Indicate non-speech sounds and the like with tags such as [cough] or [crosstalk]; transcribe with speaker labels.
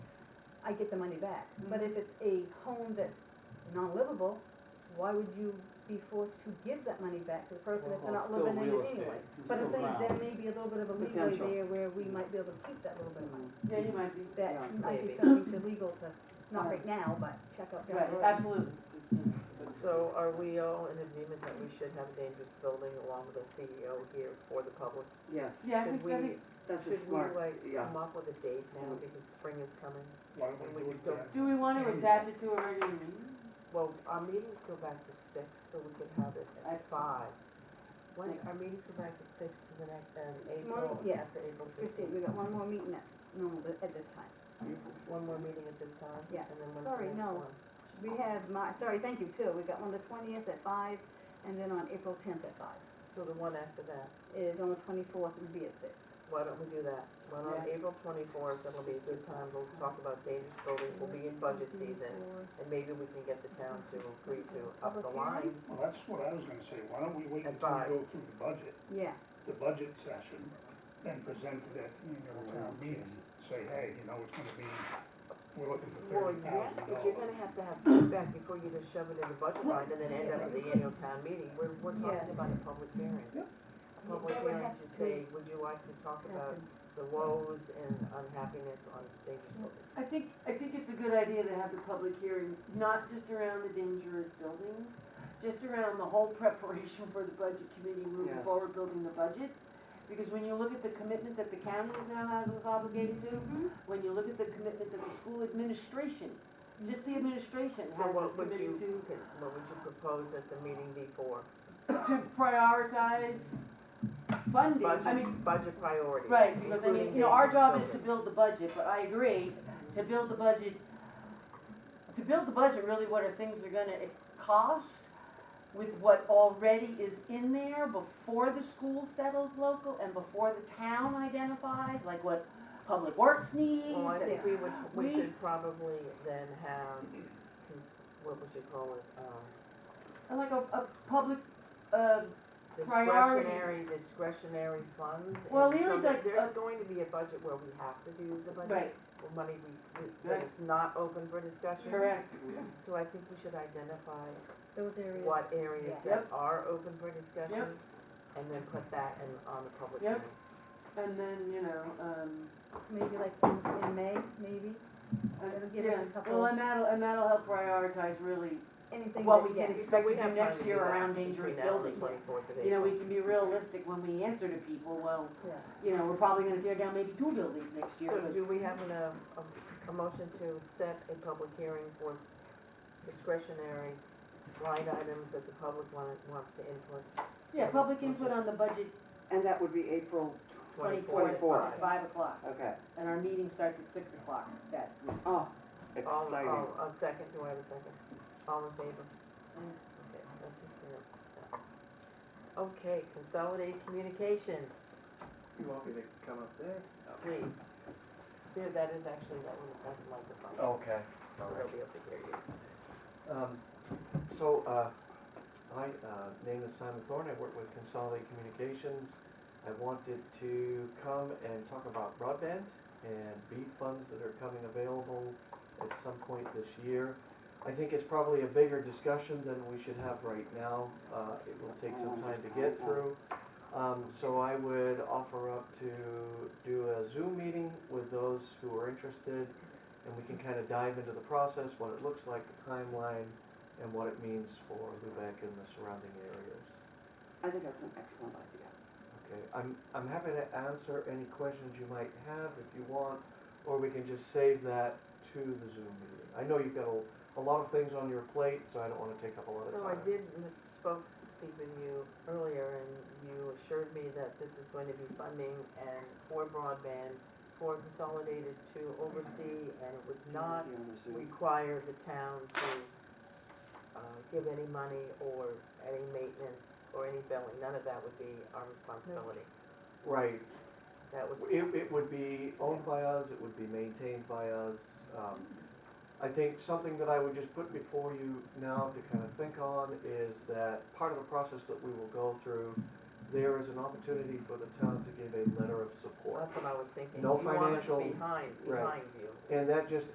Speaker 1: I get the money back. But if it's a home that's non-livable, why would you be forced to give that money back to the person if
Speaker 2: Well,
Speaker 1: they're not
Speaker 2: it's
Speaker 1: living
Speaker 2: still
Speaker 1: in
Speaker 2: real
Speaker 1: it
Speaker 2: estate.
Speaker 1: anyway?
Speaker 2: It's
Speaker 1: But I'm
Speaker 2: still
Speaker 1: saying there
Speaker 2: ground.
Speaker 1: may be a little bit of a leeway
Speaker 2: Potential. Mm-hmm.
Speaker 1: there where we might be able to keep that little bit of money.
Speaker 3: Yeah, you might be,
Speaker 1: That
Speaker 3: yeah,
Speaker 1: might be
Speaker 3: maybe.
Speaker 1: something to legal to, not right now, but check out down
Speaker 3: Right,
Speaker 1: the road.
Speaker 3: absolutely.
Speaker 4: So are we all in agreement that we should have a dangerous building along with a CEO here for the public?
Speaker 5: Yes,
Speaker 3: Yeah, I think,
Speaker 4: Should we-
Speaker 3: I think,
Speaker 5: that's a
Speaker 4: Should we
Speaker 5: smart,
Speaker 4: like
Speaker 5: yeah.
Speaker 4: come up with a date now because spring is coming?
Speaker 6: Why don't we do it then?
Speaker 3: do we want to attach it to a regular meeting?
Speaker 4: Well, our meetings go back to six, so we could have it at
Speaker 3: At-
Speaker 4: five. When, our meetings go back at six to the next, um, April,
Speaker 1: Mon- yeah.
Speaker 4: after April
Speaker 1: Fifteen, we
Speaker 4: fifteenth.
Speaker 1: got one more meeting at, no, at this time.
Speaker 4: One more meeting at this time?
Speaker 1: Yes.
Speaker 4: And then when's
Speaker 1: Sorry,
Speaker 4: the next
Speaker 1: no.
Speaker 4: one?
Speaker 1: We have Mar, sorry, thank you, too. We got one the twentieth at five, and then on April tenth at five.
Speaker 4: So the one after that,
Speaker 1: Is on the twenty-fourth, it'd be at six.
Speaker 4: why don't we do that? Well, on
Speaker 3: Yeah.
Speaker 4: April twenty-fourth, that'll be a good time, we'll talk about dangerous buildings, we'll be in budget season. And maybe we can get the town to agree to up the line.
Speaker 6: Well, that's what I was gonna say, why don't we wait
Speaker 4: At
Speaker 6: until we
Speaker 4: five.
Speaker 6: go through the budget,
Speaker 1: Yeah,
Speaker 6: the budget session, and present it at the annual town meeting? Say, hey, you know, it's gonna be, we're looking for
Speaker 4: Well,
Speaker 6: thirty
Speaker 4: yes,
Speaker 6: thousand
Speaker 4: but you're
Speaker 6: dollars.
Speaker 4: gonna have to have feedback before you just shove it in the budget line and then end up at the annual town meeting. We're, we're talking
Speaker 1: Yeah.
Speaker 4: about a public hearing.
Speaker 6: Yep.
Speaker 4: A public
Speaker 1: That would
Speaker 4: hearing
Speaker 1: have
Speaker 4: to
Speaker 1: to
Speaker 4: say, would you like to talk about
Speaker 1: happen.
Speaker 4: the woes and unhappiness on dangerous buildings?
Speaker 3: I think, I think it's a good idea to have the public hearing, not just around the dangerous buildings, just around the whole [laughs] preparation for the budget committee moving
Speaker 5: Yes.
Speaker 3: forward, building the budget. Because when you look at the commitment that the county is now has- is obligated to, when you look at the commitment that the school administration, just the administration
Speaker 4: So
Speaker 3: has
Speaker 4: what
Speaker 3: is
Speaker 4: would you,
Speaker 3: committed to,
Speaker 4: con- what would you propose at the meeting before?
Speaker 3: to prioritize funding. I mean,
Speaker 4: Budget, budget priorities.
Speaker 3: Right, because I mean,
Speaker 4: including
Speaker 3: you know, our
Speaker 4: dangerous
Speaker 3: job is to
Speaker 4: buildings.
Speaker 3: build the budget, but I agree, to build the budget, to build the budget, really what are things are gonna cost with what already is in there before the school settles local and before the town identifies, like what public works needs.
Speaker 4: Well, Oh, I
Speaker 3: and-
Speaker 4: think we would, we
Speaker 3: We-
Speaker 4: should probably then have, con- what would you call it, um,
Speaker 3: And like a, a public, uh, Priority.
Speaker 4: discretionary, discretionary funds. and
Speaker 3: Well,
Speaker 4: so
Speaker 3: really,
Speaker 4: there-
Speaker 3: like,
Speaker 4: There's
Speaker 3: uh,
Speaker 4: going to be a budget where we have to do the budget,
Speaker 3: right,
Speaker 4: or money we, we-
Speaker 3: Right.
Speaker 4: that is not open for discussion.
Speaker 3: correct,
Speaker 4: So I think we should identify
Speaker 1: those areas.
Speaker 4: what areas
Speaker 1: Yeah.
Speaker 4: that are open for discussion, and then put that in, on the public
Speaker 3: Yep.
Speaker 4: hearing.
Speaker 3: and then, you know, um,
Speaker 1: maybe like in, in May, maybe,
Speaker 3: and-
Speaker 1: That'll give us
Speaker 3: Uh, yeah,
Speaker 1: a couple-
Speaker 3: well, and that'll, and that'll help prioritize really
Speaker 1: anything
Speaker 3: Well,
Speaker 1: that,
Speaker 3: we
Speaker 1: yeah.
Speaker 3: can-
Speaker 4: So
Speaker 3: Expect
Speaker 4: we
Speaker 3: to do
Speaker 4: have
Speaker 3: next
Speaker 4: time to
Speaker 3: year
Speaker 4: do that
Speaker 3: around
Speaker 4: between
Speaker 3: dangerous
Speaker 4: now and the
Speaker 3: buildings.
Speaker 4: 24th of
Speaker 3: You know, we
Speaker 4: April.
Speaker 3: can be realistic when we answer to people, well,
Speaker 1: Yes.
Speaker 3: you know, we're probably gonna tear down maybe two buildings next year,
Speaker 4: So
Speaker 3: but
Speaker 4: do we have an, um, a, a motion to set a public hearing for discretionary line items that the public want, wants to input?
Speaker 3: yeah, public input on the budget
Speaker 5: and that would be April,
Speaker 3: twenty-fourth,
Speaker 5: 24th.
Speaker 3: at five o'clock,
Speaker 5: okay.
Speaker 3: and our meeting starts at six o'clock that week.
Speaker 5: Oh,
Speaker 4: All,
Speaker 5: exciting.
Speaker 4: all, a second, do I have a second? All in favor?
Speaker 3: Mm.
Speaker 4: Okay, that took care of that. Okay, consolidate communication,
Speaker 7: You want me to come up there?
Speaker 4: please. There, that is actually, that one, that's a microphone,
Speaker 7: Okay,
Speaker 4: so they'll be able to hear you.
Speaker 7: Um, so, uh, my, uh, name is Simon Thorne, I work with Consolidated Communications. I wanted to come and talk about broadband and BEAD funds that are coming available at some point this year. I think it's probably a bigger discussion than we should have right now, uh, it will take some time to get through. Um, so I would offer up to do a Zoom meeting with those who are interested, and we can kind of dive into the process, what it looks like, the timeline, and what it means for Lubec and the surrounding areas.
Speaker 5: I think that's an excellent idea.
Speaker 7: Okay, Uh, I'm, I'm happy to answer any questions you might have if you want, or we can just save that to the Zoom meeting. I know you've got a, a lot of things on your plate, so I don't want to take up a lot of time.
Speaker 4: So I did m- spoke, speak with you earlier, and you assured me that this is going to be funding and for broadband, for consolidated to oversee, and it would not
Speaker 5: Be on the Zoom.
Speaker 7: Mm-hmm.
Speaker 4: require the town to uh, give any money or any maintenance or any billing, none of that would be our responsibility.
Speaker 7: Right,
Speaker 4: That was,
Speaker 7: It, it would be owned by us, it would be maintained by us. Um, I think something that I would just put before you now to kind of think on is that part of the process that we will go through, there is an opportunity for the town to give a letter of support.
Speaker 4: that's what I was thinking.
Speaker 7: No
Speaker 4: You want us
Speaker 7: financial-
Speaker 4: Behind,
Speaker 7: right.
Speaker 4: behind you.
Speaker 7: And that just